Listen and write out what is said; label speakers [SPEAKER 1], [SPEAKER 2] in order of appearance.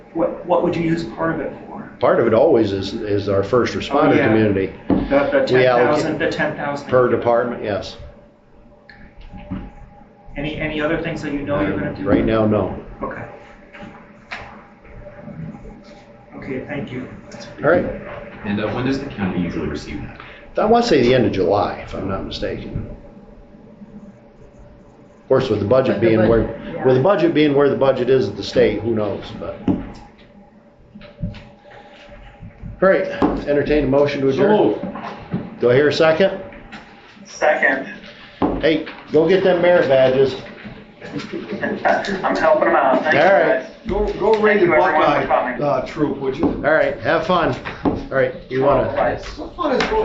[SPEAKER 1] What, what would you use part of it for?
[SPEAKER 2] Part of it always is, is our first
[SPEAKER 1] Oh,
[SPEAKER 2] responder
[SPEAKER 1] yeah.
[SPEAKER 2] community
[SPEAKER 1] The, the ten
[SPEAKER 2] We allocate-
[SPEAKER 1] thousand, the ten thousand?
[SPEAKER 2] per department, yes.
[SPEAKER 1] Any, any other things that you know you're gonna do?
[SPEAKER 2] Right now, no.
[SPEAKER 1] Okay. Okay, thank you.
[SPEAKER 2] All right.
[SPEAKER 3] And uh, when does the county usually receive that?
[SPEAKER 2] I want to say the end of July, if I'm not mistaken. Of course, with the budget
[SPEAKER 4] With the
[SPEAKER 2] being
[SPEAKER 4] budget,
[SPEAKER 2] where,
[SPEAKER 4] yeah.
[SPEAKER 2] with the budget being where the budget is at the state, who knows, but. All right, entertain a motion to adjourn. Do I hear a second?
[SPEAKER 5] Second.
[SPEAKER 2] Hey, go get them merit badges.
[SPEAKER 5] I'm helping them out. Thank you,
[SPEAKER 2] All right.
[SPEAKER 5] guys.
[SPEAKER 6] Go, go raid
[SPEAKER 5] Thank
[SPEAKER 6] the
[SPEAKER 5] you, everyone, for
[SPEAKER 6] Buckeye
[SPEAKER 5] coming.
[SPEAKER 6] uh, troop, would you?
[SPEAKER 2] All right, have fun. All right, you wanna?
[SPEAKER 5] Bye.
[SPEAKER 6] What fun is going